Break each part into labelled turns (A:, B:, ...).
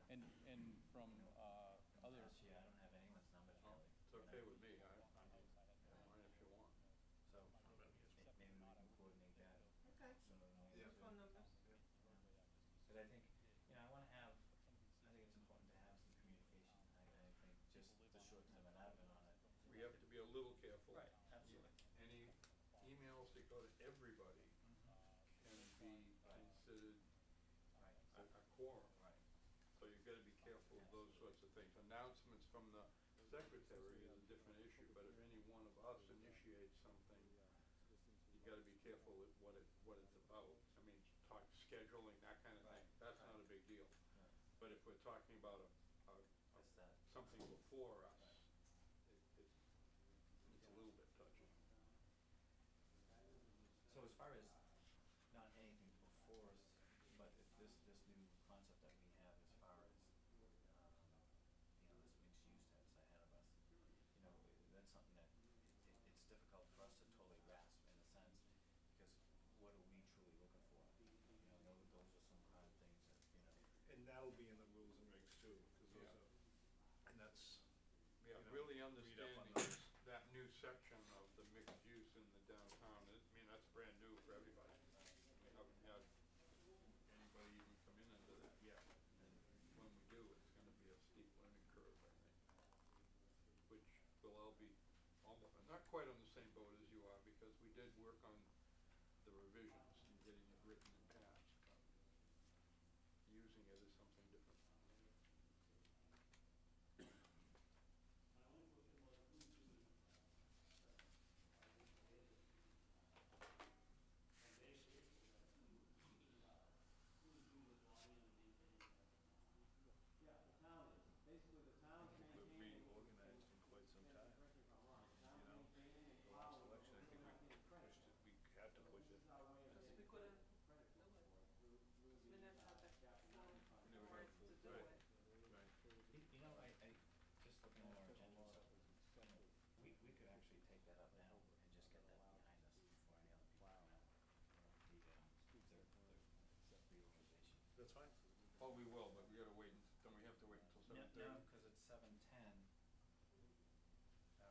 A: uh,
B: go to everybody can be considered a, a quorum. So you've gotta be careful of those sorts of things. Announcements from the secretary is a different issue, but if any one of us initiates something, you gotta be careful at what it, what it's about. I mean, talk scheduling, that kind of thing, that's not a big deal. But if we're talking about a,
A: That's that.
B: something before us, it, it, it's a little bit touchy.
A: So as far as not anything before us, but if this, this new concept that we have as far as, um, you know, this mixed use that's ahead of us, you know, i- that's something that it, it- it's difficult for us to totally grasp in a sense, because what are we truly looking for? You know, those, those are some kind of things that, you know,
C: And that'll be in the rules and regs too, cause those
B: Yeah.
C: are, and that's, you
B: Yeah,
C: know,
B: really
C: read up on
B: understanding
C: those.
B: that new section of the mixed use in the downtown, I mean, that's brand new for everybody. We haven't had anybody even come in under that yet. And when we do, it's gonna be a steep learning curve, I think. Which will all be almost, not quite on the same boat as you are, because we did work on the revisions and getting it written and passed. but Using it as something different.
C: we've reorganized in quite some time, you know? The last election, I think we pushed it, we had to push it.
D: We couldn't We didn't have the force to do
B: Right.
D: it.
A: you, you know, I, I, just looking at our agenda, and stuff, you know, we, we could actually take that up now and just get that behind us before any other people come out. The, um, their, their reorganization.
C: That's fine.
B: Oh, we will, but we gotta wait, and- don't we have to wait until
A: No,
B: seven thirty?
A: no, cause it's seven ten. So, yeah,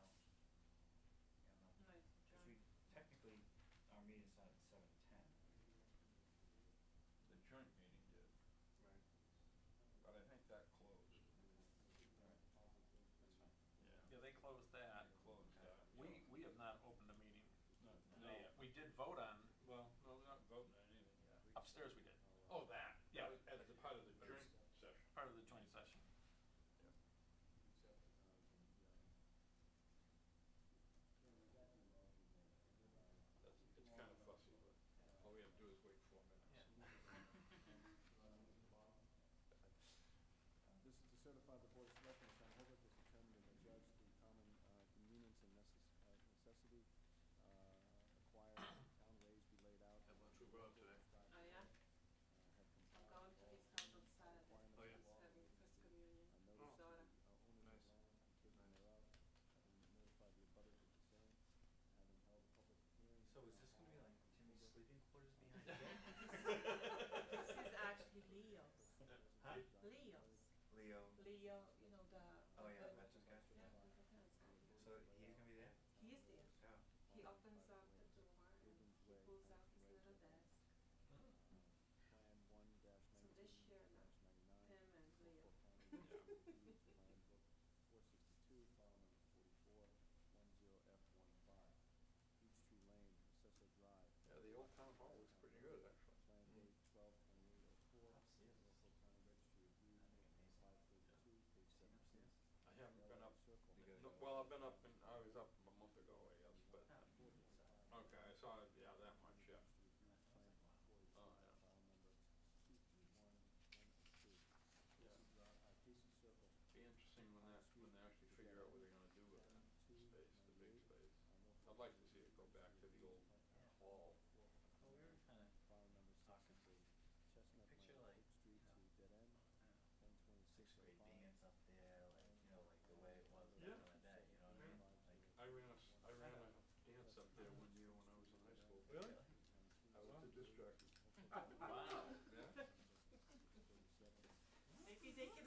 A: no,
D: No,
A: cause we, technically, our meeting's not at seven ten.
B: The joint meeting did.
A: Right.
B: But I think that closed.
A: Alright, that's fine.
E: Yeah, they closed that.
B: It closed that.
E: We, we have not opened the meeting.
B: No,
E: They, uh, We did vote on,
B: well, no, we're not voting on anything yet.
E: upstairs we did. Oh, that, yeah,
B: As a part of the joint session.
E: part of the joint session.
B: That's, it's kind of fussy, but all we have to do is wait four minutes.
F: This is to certify the Board of Selectmen, of Town Hall, has determined that the judge the common uh, convenience and necess- uh, necessity uh, acquired in town ways be laid out.
C: Had lunch with Rob today.
D: Oh, yeah?
F: Have
D: I'm
F: complied
D: going
F: with
D: to
F: all
D: East Hampton Saturday.
C: Oh, yeah.
F: requirements of
D: He's
F: law
D: having
F: relating
D: first
F: to
D: communion.
F: a notice
D: Daughter.
F: of the, uh, owners
C: Nice.
F: of land and taking thereof, and notify the abutters of the same, having held a public hearing.
A: So is this gonna be like Timmy's sleeping quarters behind
D: This is actually Leo's.
A: Huh?
D: Leo's.
A: Leo,
D: Leo, you know, the.
A: oh yeah,
D: the-
A: veterans guy,
D: Yeah, the
A: so
D: veterans guy.
A: he's gonna be there?
D: He is there.
A: Yeah.
D: He opens up the door and he pulls out his little desk.
F: Plan one dash
D: So
F: nineteen
D: this year, no.
F: dash ninety-nine.
D: Him and Leo.
F: Plan book four sixty-two, file number forty-four, one zero F one five, Peachtree Lane, Cecil Drive.
B: Yeah, the old town hall was pretty good, actually.
F: Plan date twelve twenty-eight oh four,
A: Upstairs.
F: local county registry of deeds, five thirty-two, page seventeen.
A: Upstairs.
B: I haven't been up,
F: Circle.
A: We gotta
B: no,
A: go.
B: well, I've been up, and I was up a month ago, I guess, but,
A: Ah, so-
B: okay, I saw, it, yeah, that much, yeah. Oh, yeah.
F: File number two three one one oh two.
B: Yeah.
F: Casey Drive, uh, Casey Circle,
B: Be interesting when that, when they actually figure out what they're gonna do with that space, the big space. I'd like to